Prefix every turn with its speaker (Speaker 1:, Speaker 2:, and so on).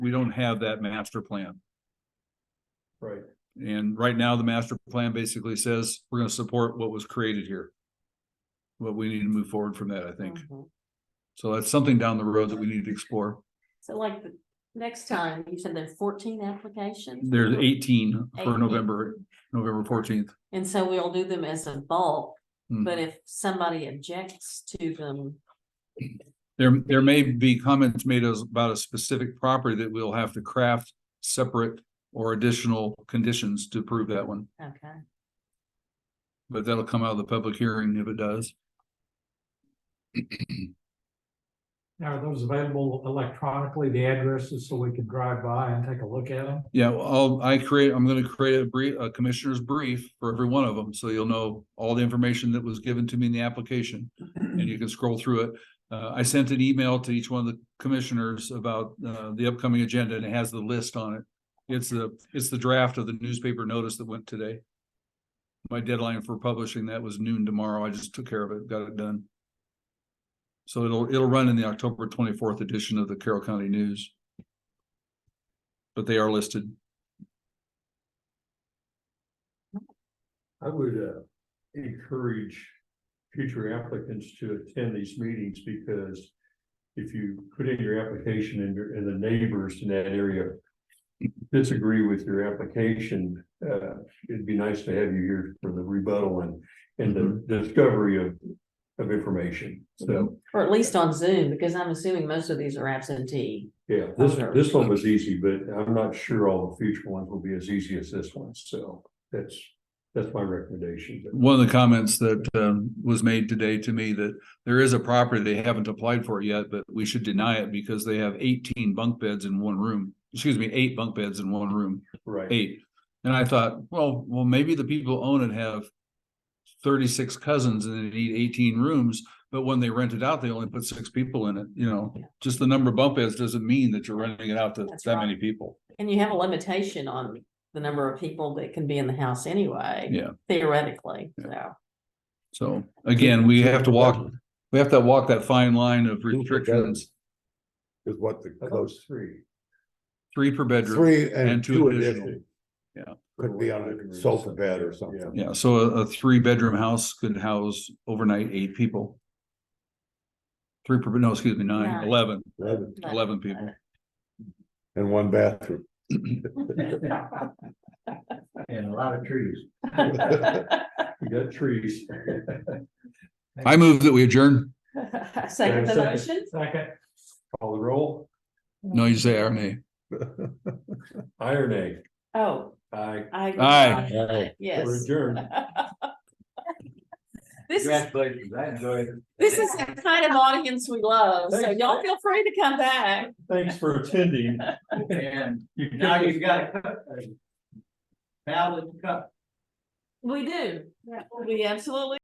Speaker 1: we don't have that master plan.
Speaker 2: Right.
Speaker 1: And right now, the master plan basically says we're gonna support what was created here. But we need to move forward from that, I think.
Speaker 3: Mhm.
Speaker 1: So that's something down the road that we need to explore.
Speaker 3: So like, the next time, you said there are fourteen applications?
Speaker 1: There's eighteen for
Speaker 3: 18.
Speaker 1: November, November fourteenth. Mm.
Speaker 3: And so we'll do them as a bulk,
Speaker 1: Mm-hmm.
Speaker 3: but if somebody objects to them,
Speaker 1: There, there may be comments made as- about a specific property that we'll have to craft separate or additional conditions to prove that one,
Speaker 3: okay,
Speaker 1: but that'll come out of the public hearing if it does.
Speaker 2: Now, are those available electronically, the addresses, so we can drive by and take a look at them?
Speaker 1: Yeah, well, I'll, I create, I'm gonna create a brief, a commissioner's brief for every one of them, so you'll know all the information that was given to me in the application. And you can scroll through it. Uh, I sent an email to each one of the commissioners about, uh, the upcoming agenda and it has the list on it. It's the, it's the draft of the newspaper notice that went today. My deadline for publishing that was noon tomorrow. I just took care of it, got it done. So it'll, it'll run in the October twenty-fourth edition of the Carroll County News. But they are listed.
Speaker 4: I would uh encourage future applicants to attend these meetings because. If you put in your application and your, and the neighbors in that area. Disagree with your application, uh, it'd be nice to have you here for the rebuttal and, and the
Speaker 1: Mm-hmm.
Speaker 4: discovery of. Of information, so,
Speaker 3: or at least on Zoom, because I'm assuming most of these are absentee.
Speaker 1: Mm-hmm.
Speaker 4: yeah, this, this one was easy, but I'm not sure all the future ones will be as easy as this one, so that's. That's my recommendation,
Speaker 1: one of the comments that um was made today to me that there is a property they haven't applied for yet, but we should deny it because they have eighteen bunk beds in one room. Excuse me, eight bunk beds in one room,
Speaker 4: right?
Speaker 1: eight. And I thought, well, well, maybe the people who own it have thirty-six cousins and they need eighteen rooms, but when they rent it out, they only put six people in it, you know?
Speaker 3: Yeah.
Speaker 1: Just the number of bunk beds doesn't mean that you're renting it out to
Speaker 3: That's
Speaker 1: that
Speaker 3: right.
Speaker 1: many people.
Speaker 3: And you have a limitation on the number of people that can be in the house anyway.
Speaker 1: Yeah.
Speaker 3: Theoretically, so.
Speaker 1: So again, we have to walk, we have to walk that fine line of restrictions,
Speaker 5: Is what the
Speaker 4: I thought it was
Speaker 5: close,
Speaker 4: three.
Speaker 1: three per bedroom.
Speaker 5: three
Speaker 1: and
Speaker 5: and
Speaker 1: two
Speaker 5: two
Speaker 1: additional.
Speaker 5: additional. Could be on a sofa bed or something.
Speaker 1: Yeah, so a, a three bedroom house could house overnight eight people. Three per, no, excuse me, nine,
Speaker 3: Nine.
Speaker 1: eleven,
Speaker 5: Eleven-
Speaker 3: but-
Speaker 1: eleven people.
Speaker 5: And one bathroom.
Speaker 4: And a lot of trees. We got trees.
Speaker 1: I move that we adjourn.
Speaker 3: Second the
Speaker 4: Second.
Speaker 3: motion?
Speaker 2: Second.
Speaker 4: Call the roll.
Speaker 1: No, you say aye or nay.
Speaker 4: Iron egg.
Speaker 3: Oh,
Speaker 4: Aye.
Speaker 3: I.
Speaker 1: Aye.
Speaker 4: We're
Speaker 3: Yes.
Speaker 4: adjourned.
Speaker 3: This is,
Speaker 4: Congratulations. I enjoyed it.
Speaker 3: this is the kind of audience we love, so y'all feel free to come back.
Speaker 4: Thanks for attending.
Speaker 6: And
Speaker 4: You kicked
Speaker 6: now
Speaker 4: us-
Speaker 6: you've got a cup, a valid cup.
Speaker 3: We do. We absolutely